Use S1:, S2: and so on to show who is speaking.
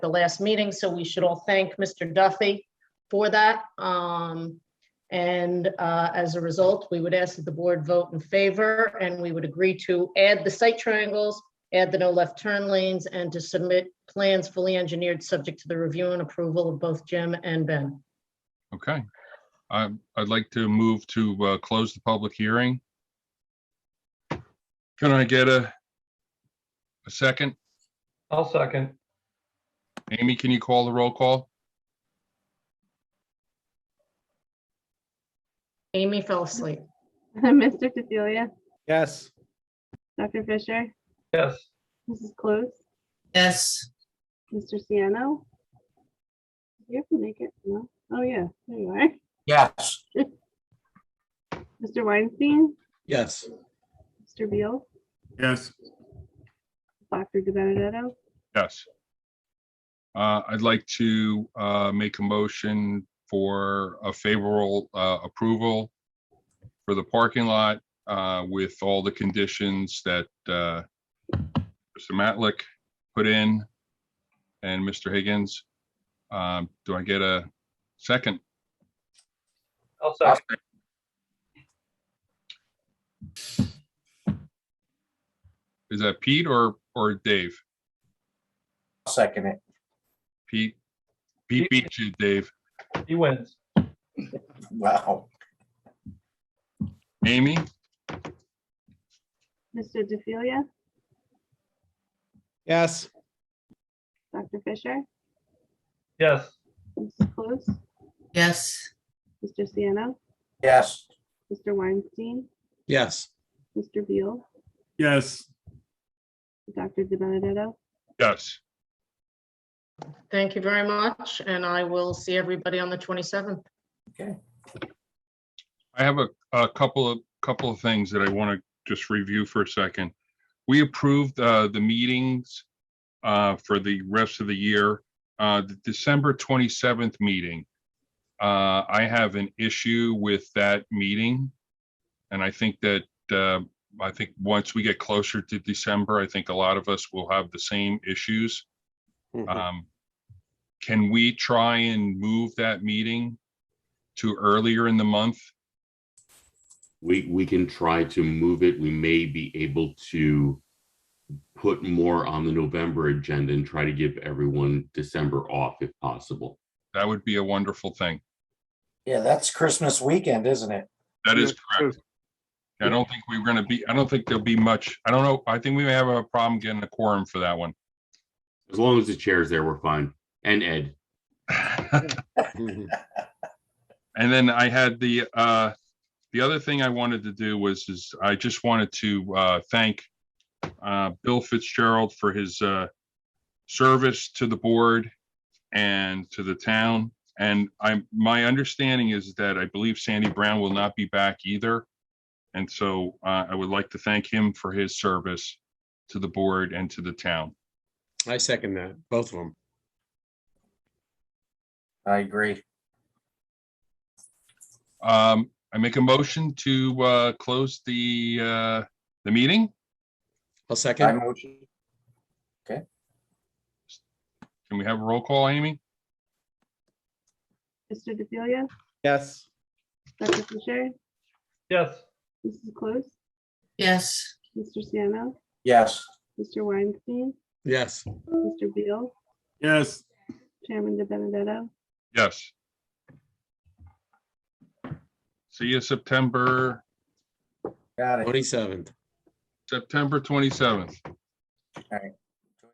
S1: the last meeting, so we should all thank Mr. Duffy for that. Um, And uh, as a result, we would ask that the board vote in favor, and we would agree to add the site triangles, add the no left turn lanes, and to submit plans fully engineered, subject to the review and approval of both Jim and Ben.
S2: Okay. Um, I'd like to move to uh, close the public hearing. Can I get a a second?
S3: I'll second.
S2: Amy, can you call the roll call?
S1: Amy fell asleep.
S4: Mr. Cecilia,
S5: Yes.
S4: Dr. Fisher,
S3: Yes,
S4: Mrs. Close,
S6: yes,
S4: Mr. Siano. You have to make it, no? Oh, yeah, there you are.
S7: Yes.
S4: Mr. Weinstein,
S5: Yes.
S4: Mr. Beal,
S8: yes,
S4: Dr. De Benedetto,
S2: Yes. Uh, I'd like to uh, make a motion for a favorable uh, approval for the parking lot uh, with all the conditions that uh, Mr. Matlick put in and Mr. Higgins. Um, Do I get a second?
S3: I'll second.
S2: Is that Pete or, or Dave?
S7: I'll Second it.
S2: Pete, Pete beat you, Dave.
S3: He wins.
S7: Wow.
S2: Amy,
S4: Mr. DeFilia,
S5: Yes.
S4: Dr. Fisher,
S3: Yes,
S4: Mrs. Close,
S6: yes,
S4: Mr. Siano,
S7: Yes.
S4: Mr. Weinstein,
S5: Yes.
S4: Mr. Beal,
S8: yes.
S4: Dr. De Benedetto.
S2: yes.
S1: Thank you very much, and I will see everybody on the 27th.
S2: I have a, a couple of, couple of things that I want to just review for a second. We approved, uh, the meetings, uh, for the rest of the year. Uh, the December twenty-seventh meeting. Uh, I have an issue with that meeting. And I think that, uh, I think once we get closer to December, I think a lot of us will have the same issues. Um, can we try and move that meeting to earlier in the month?
S9: We, we can try to move it. We may be able to put more on the November agenda and try to give everyone December off if possible.
S2: That would be a wonderful thing.
S7: Yeah, that's Christmas weekend, isn't it?
S2: That is correct. I don't think we we're gonna be, I don't think there'll be much, I don't know, I think we may have a problem getting a quorum for that one.
S9: As long as the chair's there, we're fine. And Ed,
S2: And then I had the, uh, the other thing I wanted to do was, is I just wanted to, uh, thank, uh, Bill Fitzgerald for his, uh, service to the board and to the town. And I'm, my understanding is that I believe Sandy Brown will not be back either. And so, uh, I would like to thank him for his service to the board and to the town.
S5: I second that, both of them.
S7: I agree.
S2: Um, I make a motion to, uh, close the, uh, the meeting.
S5: I'll
S7: I
S5: second.
S7: motion.
S2: Can we have a roll call, Amy?
S4: Mr. DeFilia,
S5: Yes.
S4: Dr. Fisher,
S3: yes.
S4: Mrs. Close,
S6: yes.
S4: Mr. Siano,
S7: Yes.
S4: Mr. Weinstein,
S5: Yes.
S4: Mr. Beal,
S8: Yes.
S4: Chairman De Benedetto.
S2: Yes. See you September,
S7: Got it.
S5: Twenty-seventh.
S2: September twenty-seventh.